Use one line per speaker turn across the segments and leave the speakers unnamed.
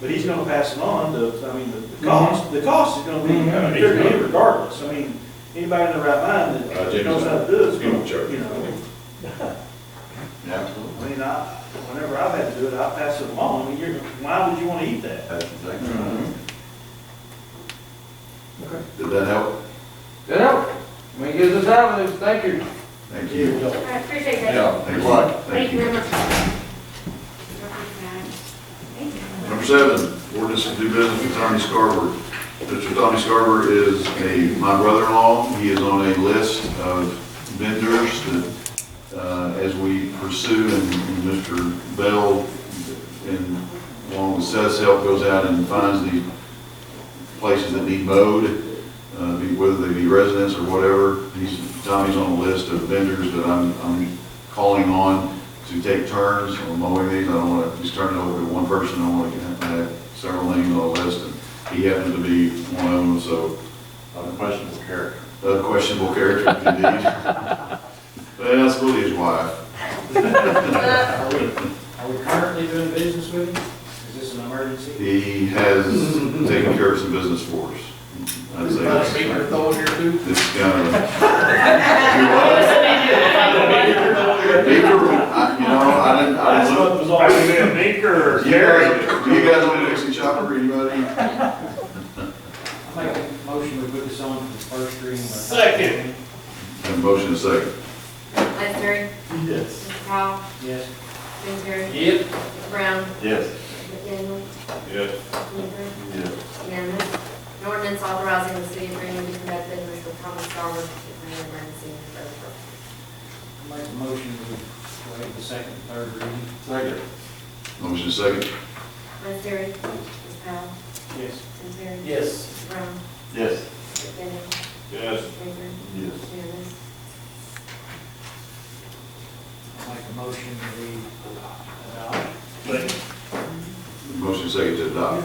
But he's gonna pass it on, the, I mean, the-
Mm-hmm.
the cost, the cost is gonna be,
Mhm.
I mean, they're gonna be regardless, I mean, anybody in their right mind
Uh,
that
Jimmy's
knows how to
not-
do it's
he won't
gonna,
charge.
you know.
Absolutely.
I mean, I, whenever I've had to do it, I pass it along, I mean, you're, why would you wanna eat that?
That's exactly
Mm-hmm.
right.
Okay.
Did that help?
Good help. I mean, give us a time, and thank you.
Thank you.
I appreciate that.
Yeah, thanks a lot.
Thank you very much. Thank you.
Number seven, ordinance to do business with Tony Scarver. Mr. Tony Scarver is a, my brother-in-law. He is on a list of vendors that, uh, as we pursue and and Mr. Bell and along with Seth's help goes out and finds the places that need mowed, uh, be- whether they be residents or whatever. He's, Tommy's on a list of vendors that I'm, I'm calling on to take turns on mowing these. I don't want to just turn it over to one person. I want to have several names on the list, and he happens to be one of them, so
On Uh, the question of character.
a questionable character indeed. But that's really his wife.
Are we, are we currently doing business with him? Is this an emergency?
He has taken care of some business for us. I'd say that's-
here too?
This kind of. Beaver, I- you know, I didn't, I
That's
didn't look.
what was always been
Do you guys, do you guys want to mix and chop or anybody?
I make a motion we put this on for the first reading.
Second.
And motion is second.
Lester,
Yes.
Mr. Powell,
Yes.
Spencer,
Yep.
Brown,
Yes.
McDaniel,
Yes.
Humphrey,
Yes.
unanimous. An ordinance authorizing the city of Greenwood to conduct business with Thomas Starwood in an emergency and for the purpose.
I make a motion we waive the second, and third reading.
Second.
Motion is second.
Lester, Mr. Powell,
Yes.
Spencer,
Yes.
Mr. Brown,
Yes.
McDaniel,
Yes.
Baker,
Yes.
unanimous.
I make a motion we adopt.
Motion is second to adopt.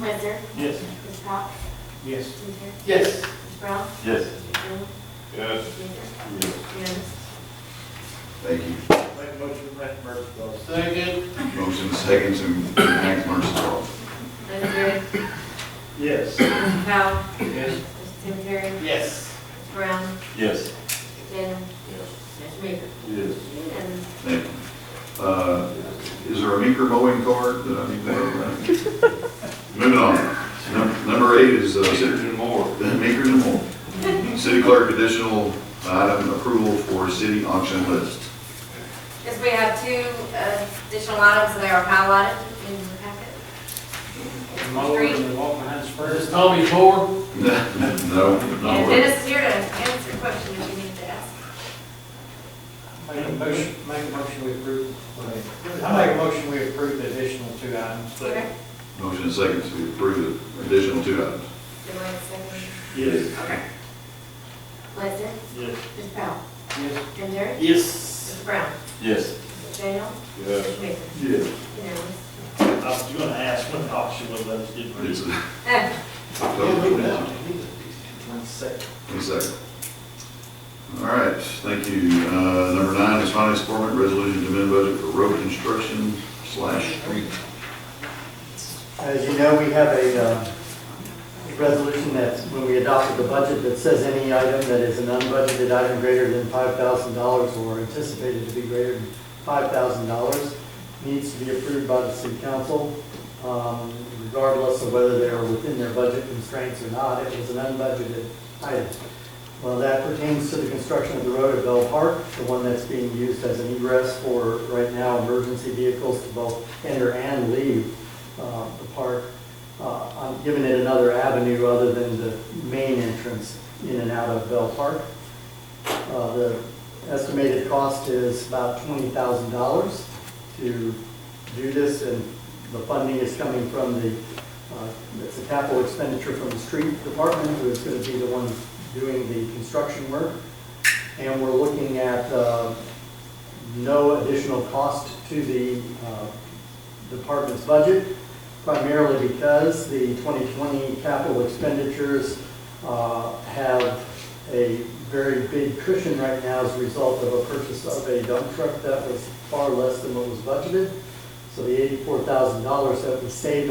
Lester,
Yes.
Mr. Powell,
Yes.
Spencer,
Yes.
Mr. Brown,
Yes.
McDaniel,
Yes.
Baker,
Yes.
unanimous.
Thank you.
Make a motion, make mercy clause.
Second.
Motion is second to enact emergency law.
Lester,
Yes.
Mr. Powell,
Yes.
Mr. Spencer,
Yes.
Mr. Brown,
Yes.
McDaniel, Mr. Baker,
Yes.
unanimous.
Thank you. Uh, Is there a meeker mowing card that I need to have? Moving on. Num- Number eight is uh, city
and more.
Then Meeker and Moore. City clerk additional item approval for city auction list.
Yes, we have two uh, additional items that are highlighted in the packet.
The mower and the walk behind the
This
spurs.
is Tommy Ford.
No,
And
no.
Dennis is here to answer your question if you need to ask.
Make a motion, make a motion we approve. I make a motion we approve the additional two items.
Okay.
Motion and second to approve the additional two items.
Do I have a second?
Yes.
Okay. Lester,
Yes.
Mr. Powell,
Yes.
and Terry,
Yes.
Mr. Brown,
Yes.
Mr. Daniel,
Yes.
Mr. Baker,
Yes.
unanimous.
I was gonna ask what option was that, just didn't.
It's a
Uh,
total.
One second.
One second. All right, thank you. Uh, Number nine is finance department resolution to amend budget for road construction slash street.
As you know, we have a uh, resolution that, when we adopted the budget, that says any item that is an unbudgeted item greater than $5,000 or anticipated to be greater than $5,000 needs to be approved by the city council, um, regardless of whether they are within their budget constraints or not. It was an unbudgeted item. Well, that pertains to the construction of the road at Bell Park, the one that's being used as an egress for, right now, emergency vehicles to both enter and leave uh, the park. Uh, I'm giving it another avenue other than the main entrance in and out of Bell Park. Uh, The estimated cost is about $20,000 to do this, and the funding is coming from the, uh, it's a capital expenditure from the street department, who is going to be the one doing the construction work. And we're looking at uh, no additional cost to the uh, department's budget, primarily because the 2020 capital expenditures uh, have a very big cushion right now as a result of a purchase of a dump truck that was far less than what was budgeted. So the $84,000 that we saved on